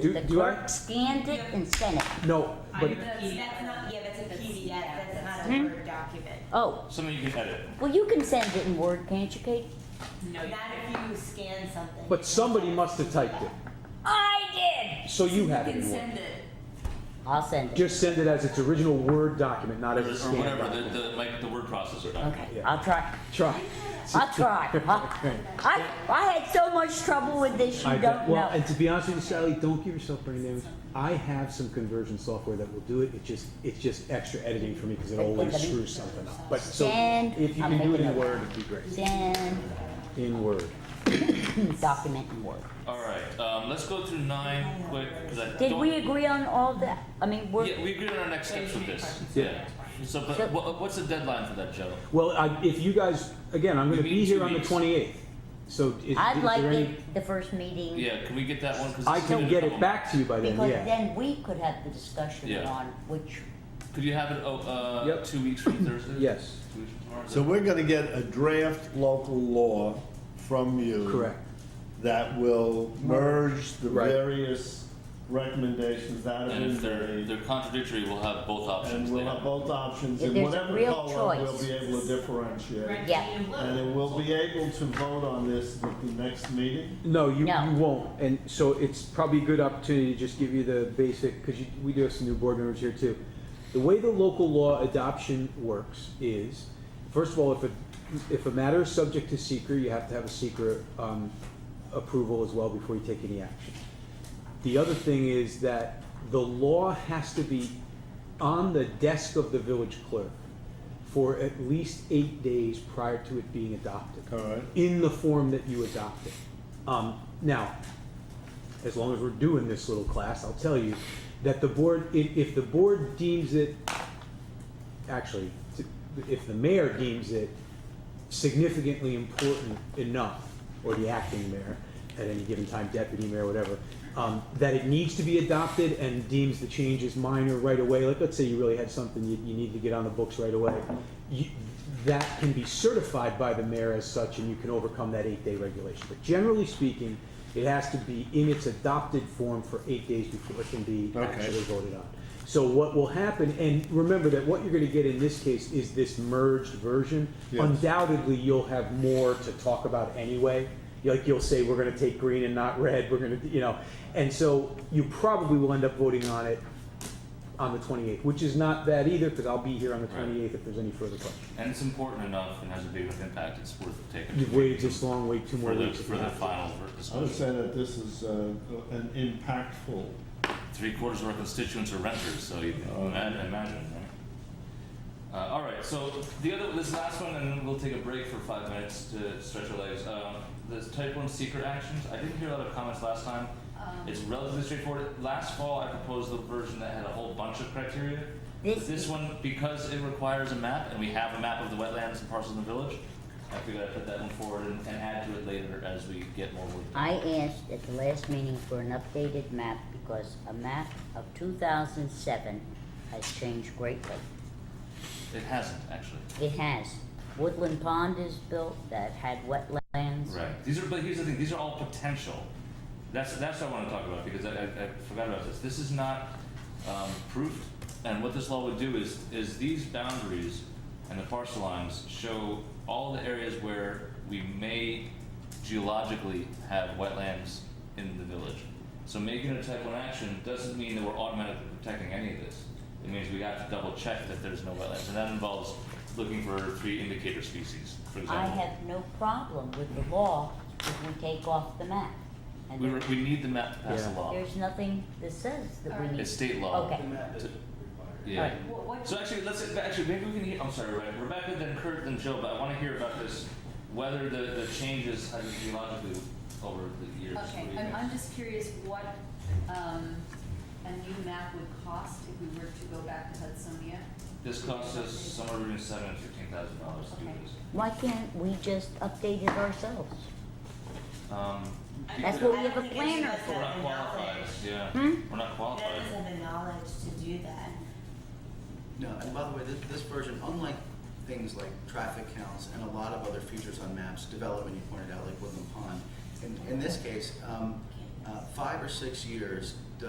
Do- The do I- clerk scanned it and sent it. No, but That's, that's not, yeah, that's a PDF, that's not a Word document. Oh, Something you can edit. well, you can send it in Word, can't you, Kate? No, not if you scan something. but somebody must have typed it. I did! So you have it. can in Word. send it. I'll send it. Just send it as its original Word document, not Or as a or scanned whatever, document. the, the, like, the word processor document. Okay, Yeah. I'll try. Try. I'll try. I, I- I had so much trouble with this, I you bet- don't well, know. and to be honest with you, Sally, don't give yourself brain damage. I have some conversion software that will do it. It just it's just extra editing for me because it always screws something up. But so Send. if you I'm can do it making in a- Word, it'd be great. Send In Word. document in Word. All right, um, let's go through nine quick, because I Did don't- we agree on all that? I mean, we're, Yeah, we agreed on our next steps with this. Yeah. So, So- but what, what's the deadline for that, Joe? Well, I, if you guys again, I'm going to We be need here two on the weeks. 28th. So is, I'd is like there any? it the first meeting. Yeah, can we get that one? 'Cause I it's can been a get couple it back to you by then. Because Yeah. then we could have the discussion Yeah. on which, months. Could you have it, oh, uh, Yep. two weeks from Thursday? Yes. Two weeks from tomorrow? So we're gonna get a draft local law from you. Correct. That will merge the Right. various recommendations that have And if been they're, made. they're contradictory, we'll have both options And we'll have later. both options, If and there's a whatever real color, we'll choice. be able to differentiate. yeah. And then we'll be able to vote on this at the next meeting. No, you, No. you won't. And so it's probably a good opportunity to just give you the basic, because we do have some new board members here too. The way the local law adoption works is, first of all, if a, if a matter is subject to seeker, you have to have a seeker um, approval as well before you take any action. The other thing is that the law has to be on the desk of the village clerk for at least eight days prior to it being adopted All right. in the form that you adopted. Um, now, as long as we're doing this little class, I'll tell you that the board, if, if the board deems it, actually, t- if the mayor deems it significantly important enough, or the acting mayor, at any given time, deputy mayor, whatever, um, that it needs to be adopted and deems the change is minor right away, like, let's say you really had something you, you need to get on the books right away, you, that can be certified by the mayor as such, and you can overcome that eight-day regulation. But generally speaking, it has to be in its adopted form for eight days before it can be Okay. actually voted on. So what will happen, and remember that what you're gonna get in this case is this merged version. Yes. Undoubtedly, you'll have more to talk about anyway. Like, you'll say, we're gonna take green and not red, we're gonna, you know, and so you probably will end up voting on it on the twenty-eighth, which is not bad either, because I'll be here on the Right. twenty-eighth if there's any further questions. And it's important enough and has a big enough impact, it's worth taking. You've waited this long, wait two more For the, weeks. if for you the have to. final ver- I would say disclosure. that this is uh, an impactful Three quarters of our constituents are renters, so you can Oh. ima- imagine, right? Uh, all right, so the other, this last one, and then we'll take a break for five minutes to stretch our legs. Um, this type one secret actions, I didn't hear a lot of comments last time. It's relatively straightforward. Last fall, I proposed a version that had a whole bunch of criteria. But This- This one, because it requires a map, and we have a map of the wetlands and parcels in the village, I figured I'd put that one forward and, and add to it later as we get more work done. I asked at the last meeting for an updated map because a map of two thousand seven has changed greatly. It hasn't, actually. It has. Woodland Pond is built that had wetlands. Right. These are, but here's the thing. These are all potential. That's that's what I want to talk about because I, I, I forgot about this. This is not um, proofed, and what this law would do is is these boundaries and the parcel lines show all the areas where we may geologically have wetlands in the village. So making a type one action doesn't mean that we're automatically protecting any of this. It means we have to double check that there's no wetlands, and that involves looking for three indicator species, for example. I have no problem with the law if we take off the map. And We, re- we need the map to pass Yeah. the law. there's nothing that says that we need. It's state law. Okay. Yeah. Alright. What, what, So actually, let's actually maybe we can. Hear, I'm sorry, Rebecca, Rebecca, then Kurt, then Joe. But I want to hear about this. Whether the, the changes hydrogeologically over the years. What Okay, do you I'm, think? I'm just curious what, um, a new map would cost if we were to go back to Hudsonia? This costs us somewhere between seven and fifteen thousand dollars to do Okay. this. Why can't we just update it ourselves? Um, That's because what we have a planner I don't think any of us we're have not the qualified. knowledge. Yeah, Hmm? we're not None qualified. of us have the knowledge to do that. No, and by the way, this, this version, unlike things like traffic counts and a lot of other features on maps, development you pointed out, like Woodland Pond, in, in this case, um, uh, five or six years